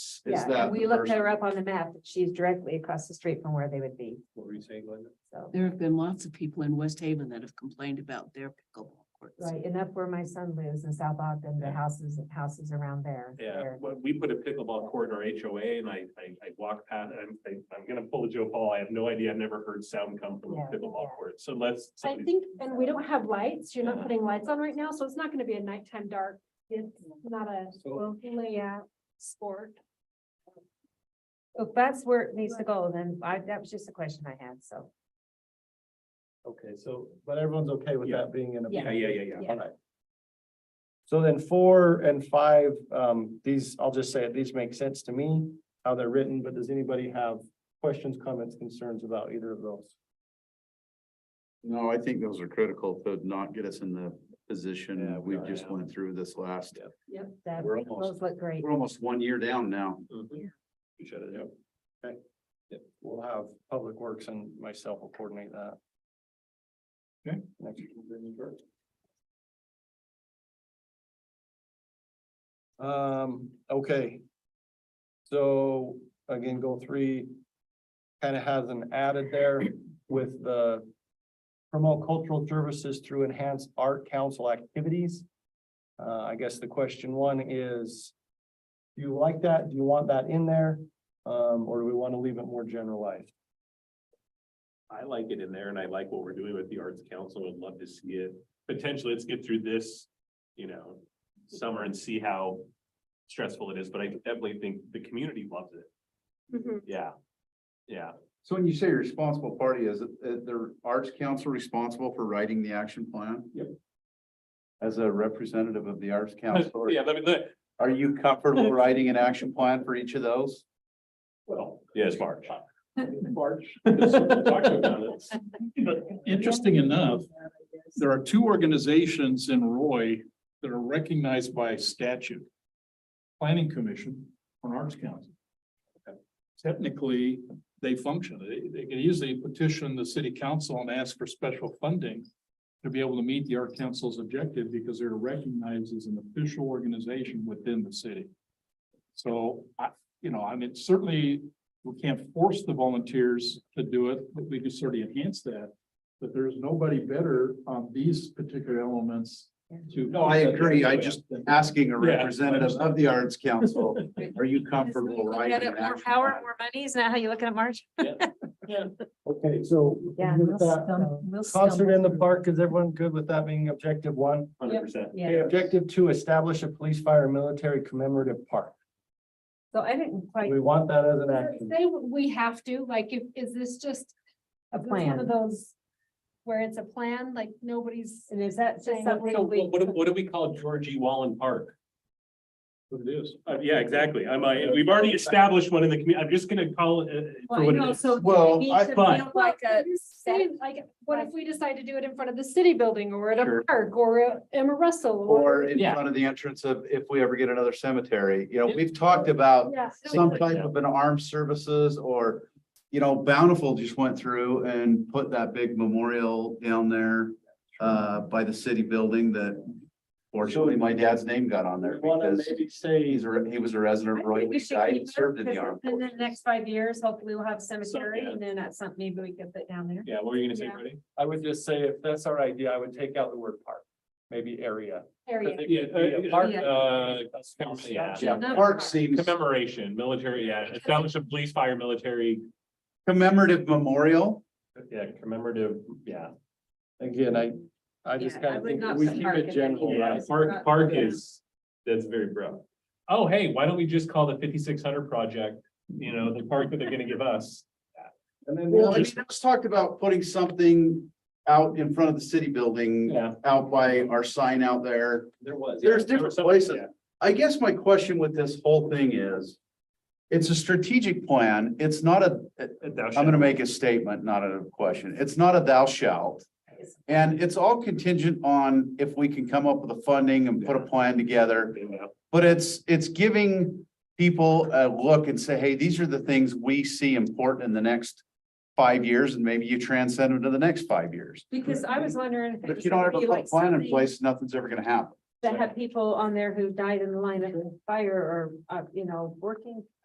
is, is Yeah, that. and we the looked person- her up on the map, and she's directly across the street from where they would be, What were you saying, Glenda? so. There have been lots of people in West Haven that have complained about their pickleball courts. Right, and that's where my son lives in South Ogden, the Yeah. houses, houses around there. Yeah, they're- when we put a pickleball court in our HOA and I, I, I walk past, I'm, I- I'm gonna pull a Joe Paul. I have no idea. I've never heard sound come from a Yeah, pickleball yeah. court. So let's. I think, and we don't have lights, you're Yeah. not putting lights on right now, so it's not gonna be a nighttime dark. It's not a So- layout sport. If that's where it needs to go, then I, that was just a question I had, so. Okay, so, but everyone's okay with Yeah. that being in a. Yeah, yeah, yeah, yeah. Yeah. All right. So then four and five, um, these, I'll just say, it, these make sense to me, how they're written, but does anybody have questions, comments, concerns about either of those? No, I think those are critical to not get us in the position we are just now. went through this last, Yep. That, We're almost- those look great. we're almost one year down now. Mm-hmm. Mhm. We shut it down. We'll have Public Works and myself will coordinate that. Okay. Next, we'll bring you first. Um, okay. So again, goal three kind of has an added there with the promote cultural services through enhanced art council activities. Uh, I guess the question one is, do you like that? Do you want that in there? Um, or do we want to leave it more generalized? I like it in there and I like what we're doing with the Arts Council. I'd love to see it. Potentially, let's get through this, you know, summer and see how stressful it is, but I definitely think the community loves it. Mm-hmm. Yeah. Yeah. So when you say responsible party, is it, is the Arts Council responsible for writing the action plan? Yep. As a representative of the Arts Council, or- Yeah, let me, let, are you comfortable writing an action plan for each of those? well, yeah, it's March. March. But interesting enough, there are two organizations in Roy that are recognized by statute. Planning Commission and Arts Council. Technically, they function. They, they can easily petition the city council and ask for special funding to be able to meet the Art Council's objective because they're recognized as an official organization within the city. So I, you know, I mean, certainly we can't force the volunteers to do it, but we can certainly enhance that. But there's nobody better on these particular elements to. No, I agree. I just asking a Yeah. representative of the Arts Council, are you comfortable writing? an action plan? more money, is that how you look at it, March? Okay, so. Yeah, with that, uh, um, Concert in the park, is everyone good with that being objective one? Hundred percent. Okay, Yeah, objective two, establish a police, fire, and military commemorative park. so I didn't Do quite We want that as an action. Say, we have to, like, if, is this just a one of plan, those where it's a plan, like, nobody's. and is that just Saying something So we? what, do- what do we call Georgie Wallen Park? What it is. Uh, yeah, exactly. I'm, I, we've already established one in the community. I'm just gonna call it. uh, for Well, what you it know, is. so Well, it needs I- to but- feel Like a. Well, you say, Like, what if we decide to do it in front of the city building or at Sure. a park or at Emma Russell? Or in Yeah. front of the entrance of, if we ever get another cemetery, you know, we've talked about Yeah. some type of an armed services or, you know, Bountiful just went through and put that big memorial down there uh, by the city building that fortunately my dad's name got on there Wanna because maybe say, he's, a- he was a resident of I Roy. think when we he should died keep and it, Served in the 'cause armed In the forces. next five years, hopefully we'll have cemetery yeah. and then that's something maybe we could put down there. Yeah, what were you gonna say, Yeah. Freddie? I would just say, if that's our idea, I would take out the word park, maybe area. Area. Yeah, Be a park, Yeah. uh, a small yeah. statue. Yeah, park seems Commemoration, military, yeah, establish a police, fire, military, commemorative memorial. yeah, commemorative, yeah. Again, I, I just Yeah, I kind of would think not we put keep park in it any general, of Yeah, right? park, park is, that's very broad. Oh, hey, why don't we just call the fifty-six hundred project, you know, the park that they're gonna give us? And then Well, we'll I mean, just, let's talk about putting something out in front of the city building, Yeah, out by our sign out there. there was. yeah, There's there were different some- places. yeah. I guess my question with this whole thing is, it's a strategic plan. It's not a, I'm gonna make a statement, not a question. It's not a thou shalt. And it's all contingent on if we can come up with the funding and put a plan together. Yeah. But it's, it's giving people a look and say, hey, these are the things we see important in the next five years, and maybe you transcend them to the next five years. Because I was wondering. if it But if was you don't gonna ever be put a like plan in something place, nothing's ever gonna happen. That have people on there who died in the line of fire or, uh, you know, working